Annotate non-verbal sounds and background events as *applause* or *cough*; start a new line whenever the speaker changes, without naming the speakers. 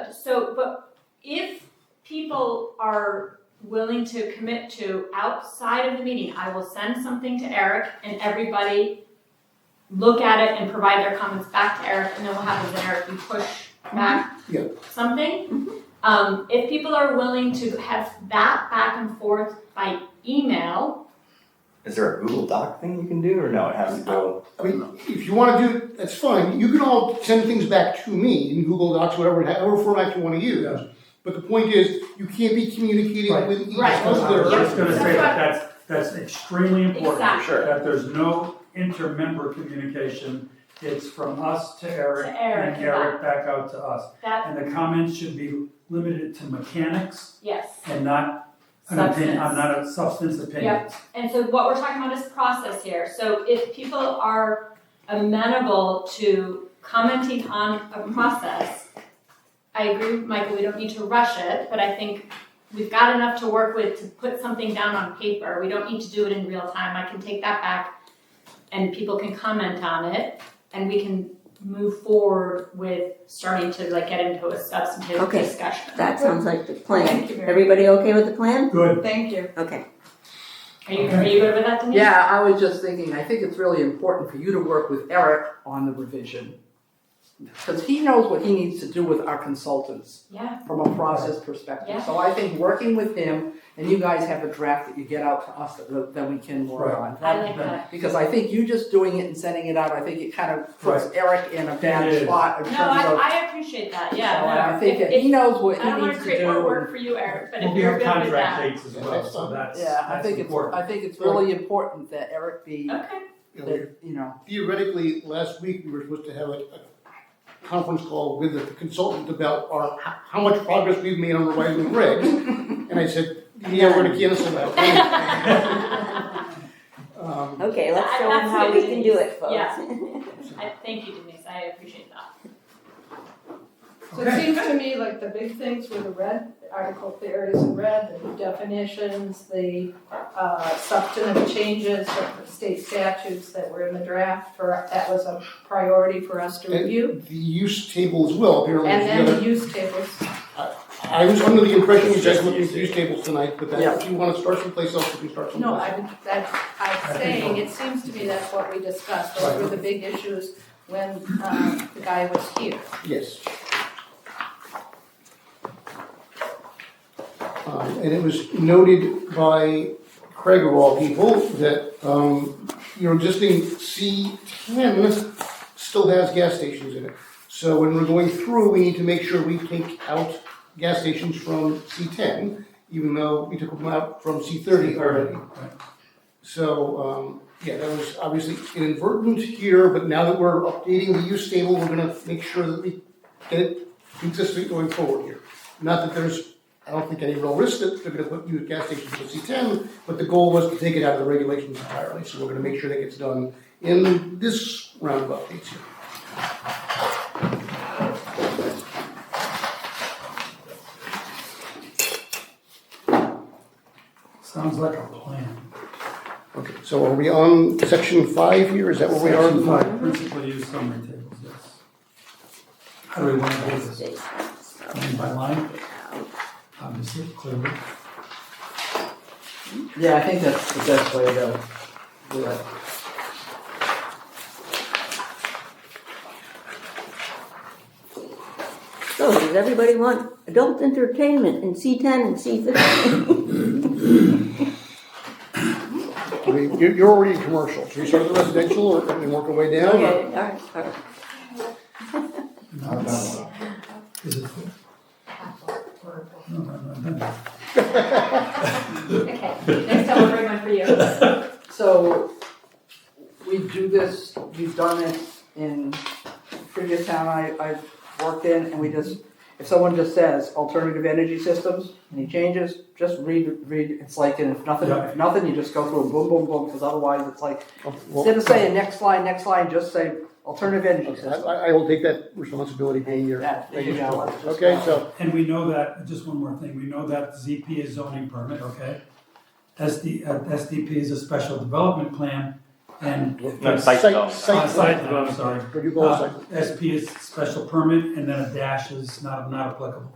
Uh, so, but if people are willing to commit to outside of the meeting, I will send something to Eric and everybody look at it and provide their comments back to Eric, and then what happens then, Eric, you push back
Mm-hmm.
Yeah.
something. Um, if people are willing to have that back and forth by email,
Is there a Google Doc thing you can do, or no? It has to go.
I mean, if you wanna do, it, that's fine, you can all send things back to me in Google Docs, whatever, however format you wanna use. But the point is, you can't be communicating
Right.
with each
Right.
other.
I was gonna say
That's
that, that's, that's extremely important,
exactly,
Sure.
that there's no inter-member communication. It's from us to Eric
To Eric
and
and
Eric back out to us.
that,
And the comments should be limited to mechanics
yes,
and not an
substance.
opinion, I'm not a substance opinion.
And so what we're talking about is process here. So if people are amenable to commenting on
Mm-hmm.
a process, I agree with Michael, we don't need to rush it, but I think we've got enough to work with to put something down on paper. We don't need to do it in real time. I can take that back and people can comment on it and we can move forward with starting to like get into a substantive
Okay.
discussion.
That sounds like the plan.
Thank you very
Everybody okay with the plan?
Good,
much. Thank you.
Okay.
Are you, are you good with that, Denise?
Yeah, I was just thinking, I think it's really important for you to work with Eric on the revision. Because he knows what he needs to do with our consultants
Yeah,
from a process perspective.
Yeah.
So I think working with him, and you guys have a draft that you get out to us that, that we can work
Right.
on.
I like that.
Because I think you just doing it and sending it out, I think it kind of puts Eric in a
It
bad
is.
spot in
No,
terms
I,
of.
I appreciate that, yeah.
So I
no.
think
If-
that he knows what
I don't
he
wanna
needs to
create
do.
more
and-
work for you, Eric, but
we'll
if
be
you're
on
good with
contract
that.
dates as well, so that's,
Yeah, I
that's
think it's,
important.
I think it's really important that Eric be,
Okay,
You know,
that, you know,
Theoretically, last week, we were supposed to have a, a conference call with the consultant about our, how- how much progress we've made on revising the regs. And I said, yeah, we're gonna cancel
*laughs*
*laughs*
that. Um,
Okay, let's show them how we can do it, folks.
*laughs* I, thank you Denise, I appreciate that.
So it seems to me like the big things were the red, article, the areas in red, the definitions, the uh, substantive changes of the state statutes that were in the draft for, that was a priority for us to
And-
review.
The use table as well, apparently.
And
is the
then
other-
the use tables.
I was under the impression you guys
Just
looked at
use
use tables tonight, but
Yeah.
that, if you wanna start someplace else, you can start someplace.
No, I'm, that's, I'm saying, it seems to me that's what we discussed, those were the big issues when um, the guy was here.
Yes. Um, and it was noted by Craig of all people that, um, your existing C ten still has gas stations in it. So when we're going through, we need to make sure we take out gas stations from C ten, even though we took them out from C thirty already.
Right.
So, um, yeah, that was obviously inadvertent here, but now that we're updating the use table, we're gonna make sure that we get it consistent going forward here. Not that there's, I don't think any real risk that they're gonna put new gas stations in C ten, but the goal was to take it out of the regulations entirely, so we're gonna make sure that gets done in this round of updates here.
Sounds like a plan.
Okay, so are we on section five here, is that where we are?
Section five, principal use summary tables, yes. How do we want to do this? Line by line, Um, obviously, clearly.
yeah, I think that's the best way to do it.
*laughs* So does everybody want adult entertainment in C ten and C fifteen? *laughs*
I mean, You're, you're already in commercial, should we start with residential or, and work our way down?
Oh,
or-
Okay, all right, all right.
No, it's- Is it full? No, no, no, no.
Okay, next time I'll bring one for you.
*laughs*
So, we do this, we've done it in previous town I, I've worked in, and we just, if someone just says alternative energy systems, any changes, just read, read, it's like, and if nothing,
Yeah.
if nothing, you just go through and boom, boom, boom, because otherwise it's like,
Oh, well-
instead of saying next line, next line, just say alternative energy
Okay,
systems.
I, I will take that responsibility being your.
That, there you go.
Okay, so,
And we know that, just one more thing, we know that ZP is zoning permit, okay? SD, uh, SDP is a special development plan, and.
No, site development.
Uh,
Site
site,
plan,
I'm sorry.
where you go,
Uh,
site.
SP is special permit, and then a dash is not, not applicable.